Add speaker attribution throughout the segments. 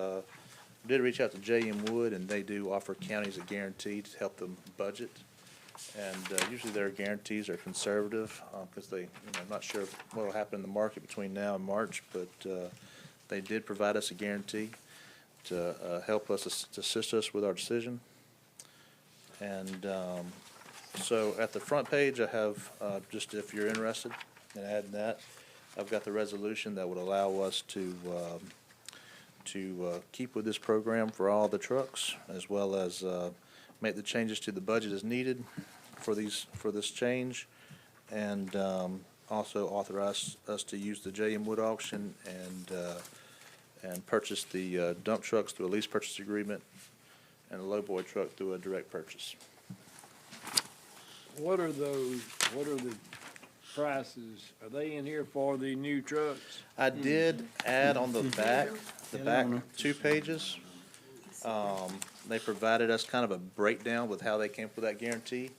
Speaker 1: Uh, did reach out to J.M. Wood, and they do offer counties a guarantee to help them budget. And uh, usually their guarantees are conservative, because they, you know, I'm not sure what'll happen in the market between now and March, but uh, they did provide us a guarantee to uh, help us, to assist us with our decision. And um, so at the front page, I have, uh, just if you're interested in adding that, I've got the resolution that would allow us to, um, to uh, keep with this program for all the trucks, as well as uh, make the changes to the budget as needed for these, for this change, and um, also authorize us to use the J.M. Wood auction and, uh, and purchase the uh, dump trucks through a lease purchase agreement and the lowboy truck through a direct purchase.
Speaker 2: What are those, what are the prices? Are they in here for the new trucks?
Speaker 1: I did add on the back, the back two pages. Um, they provided us kind of a breakdown with how they came up with that guarantee.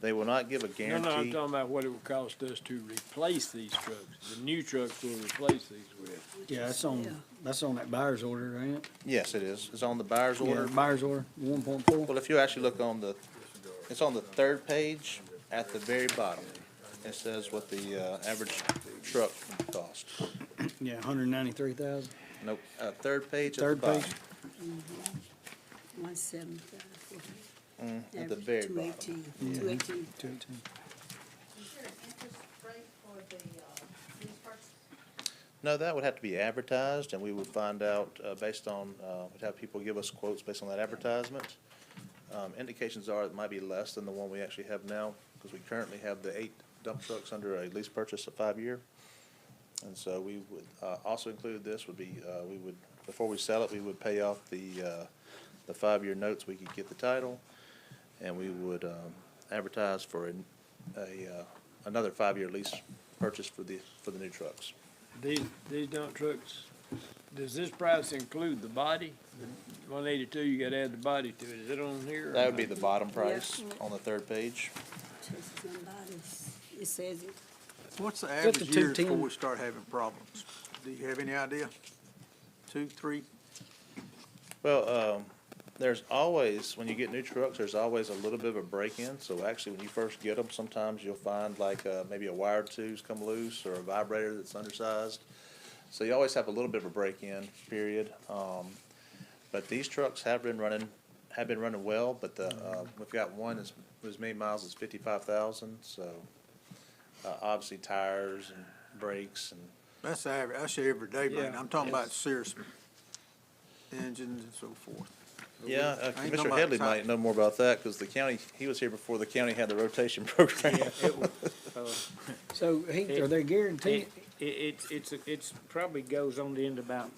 Speaker 1: They will not give a
Speaker 2: No, no, I'm
Speaker 1: guarantee.
Speaker 2: talking about what it would cost us to replace these trucks, the new trucks we'll replace these with.
Speaker 3: Yeah, that's on, that's on that buyer's order, ain't it?
Speaker 1: Yes, it is. It's on the buyer's
Speaker 3: Yeah,
Speaker 1: order.
Speaker 3: buyer's order, one point four.
Speaker 1: Well, if you actually look on the, it's on the third page at the very bottom. It says what the, uh, average truck cost.
Speaker 3: Yeah, hundred ninety-three thousand.
Speaker 1: Nope, uh, third page at the
Speaker 3: Third
Speaker 1: bottom.
Speaker 3: page.
Speaker 4: One seventy-five.
Speaker 1: Mm, At the very
Speaker 4: Two
Speaker 1: bottom.
Speaker 4: eighteen, two eighteen.
Speaker 3: Two eighteen.
Speaker 5: Is there an interest rate for the, uh, lease purchase?
Speaker 1: No, that would have to be advertised, and we would find out, uh, based on, uh, we'd have people give us quotes based on that advertisement. Um, indications are it might be less than the one we actually have now, because we currently have the eight dump trucks under a lease purchase of five-year. And so we would, uh, also include this would be, uh, we would, before we sell it, we would pay off the, uh, the five-year notes, we could get the title, and we would, um, advertise for an, a, uh, another five-year lease purchase for the, for the new trucks.
Speaker 2: These, these dump trucks, does this price include the body? One eighty-two, you gotta add the body to it. Is it on here? or
Speaker 1: That would
Speaker 2: not?
Speaker 1: be the bottom price
Speaker 4: Yeah.
Speaker 1: on the third page.
Speaker 4: Chases and bodies. It says it.
Speaker 6: What's the
Speaker 3: that the
Speaker 6: average year
Speaker 3: 210?
Speaker 6: before we start having problems? Do you have any idea? Two, three?
Speaker 1: Well, um, there's always, when you get new trucks, there's always a little bit of a break-in. So actually, when you first get them, sometimes you'll find like, uh, maybe a wire or two's come loose or a vibrator that's undersized. So you always have a little bit of a break-in period. Um, but these trucks have been running, have been running well, but the, uh, we've got one that's, as many miles as fifty-five thousand, so, uh, obviously tires and brakes and
Speaker 6: That's average, that's the everyday brand.
Speaker 2: Yeah.
Speaker 6: I'm talking about
Speaker 1: Yes.
Speaker 6: serious engines and so forth.
Speaker 1: Yeah,
Speaker 6: I
Speaker 1: uh,
Speaker 6: ain't talking
Speaker 1: Commissioner
Speaker 6: about
Speaker 1: Headley
Speaker 6: top.
Speaker 1: might know more about that, because the county, he was here before the county had the rotation program.
Speaker 3: So he, are they guaranteed?
Speaker 7: It, it, it's, it's, it's probably goes on to end about,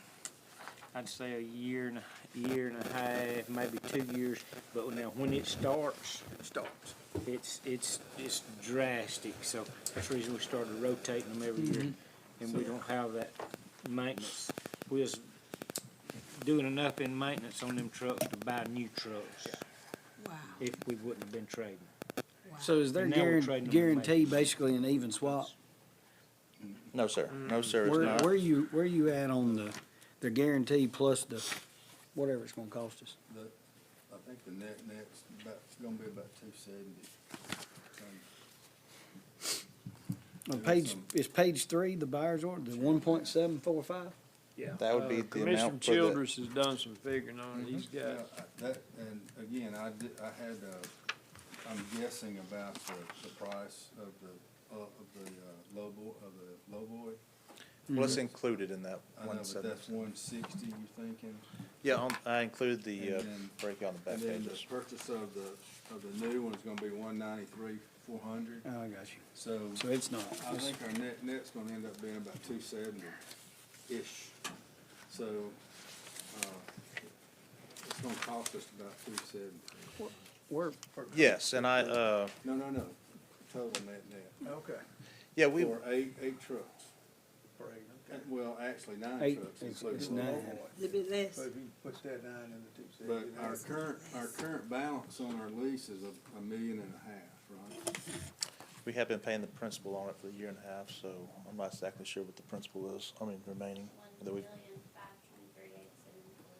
Speaker 7: I'd say a year and, a year and a half, maybe two years. But now when it starts,
Speaker 6: Starts.
Speaker 7: it's, it's, it's drastic. So that's the reason we started rotating them every year. And we don't have that maintenance. We was doing enough in maintenance on them trucks to buy new trucks
Speaker 4: Wow,
Speaker 7: if we wouldn't have been trading.
Speaker 4: wow.
Speaker 3: So is there
Speaker 7: Now we're
Speaker 3: guaran-
Speaker 7: trading them
Speaker 3: guarantee
Speaker 7: back.
Speaker 3: basically an even swap?
Speaker 1: No, sir,
Speaker 8: Mm.
Speaker 1: no, sir, it's
Speaker 3: Where,
Speaker 1: not.
Speaker 3: where you, where you at on the, the guarantee plus the, whatever it's gonna cost us?
Speaker 8: I think the net net's about, it's gonna be about two seventy.
Speaker 3: On page, is page three the buyer's order, the one point seven four five?
Speaker 2: Yeah.
Speaker 1: That would be
Speaker 2: Uh,
Speaker 1: the
Speaker 2: Commissioner
Speaker 1: amount for the-
Speaker 2: Childress has done some figuring on it. He's got.
Speaker 8: That, and again, I did, I had, uh, I'm guessing about the, the price of the, uh, of the, uh, lowboy, of the lowboy.
Speaker 1: Well, it's included in that
Speaker 8: Mm-hmm. I know,
Speaker 1: one
Speaker 8: but that's
Speaker 1: sentence.
Speaker 8: one sixty, you're thinking?
Speaker 1: Yeah, on- I included the
Speaker 8: And
Speaker 1: uh,
Speaker 8: then-
Speaker 1: breakout on the back
Speaker 8: And then the
Speaker 1: pages.
Speaker 8: purchase of the, of the new one's gonna be one ninety-three, four hundred,
Speaker 3: Oh, I got you.
Speaker 8: so
Speaker 3: So it's not.
Speaker 8: I
Speaker 3: It's-
Speaker 8: think our net net's gonna end up being about two seventy-ish. So, uh, it's gonna cost us about two seventy.
Speaker 3: We're,
Speaker 1: Yes, and I, uh,
Speaker 8: No, no, no, total net net,
Speaker 6: Okay.
Speaker 1: yeah, we,
Speaker 8: for eight, eight trucks,
Speaker 6: Right,
Speaker 8: Uh, well, actually nine
Speaker 3: Eight,
Speaker 8: trucks
Speaker 3: it's- it's
Speaker 8: including the
Speaker 3: nine.
Speaker 8: lowboy.
Speaker 4: Little bit
Speaker 6: So
Speaker 4: less.
Speaker 6: if you put that nine in the two
Speaker 8: But
Speaker 6: seventy.
Speaker 8: our current, our current balance on our lease is a, a million and a half, right?
Speaker 1: we have been paying the principal on it for a year and a half, so I'm not exactly sure what the principal is, I mean, remaining, that we've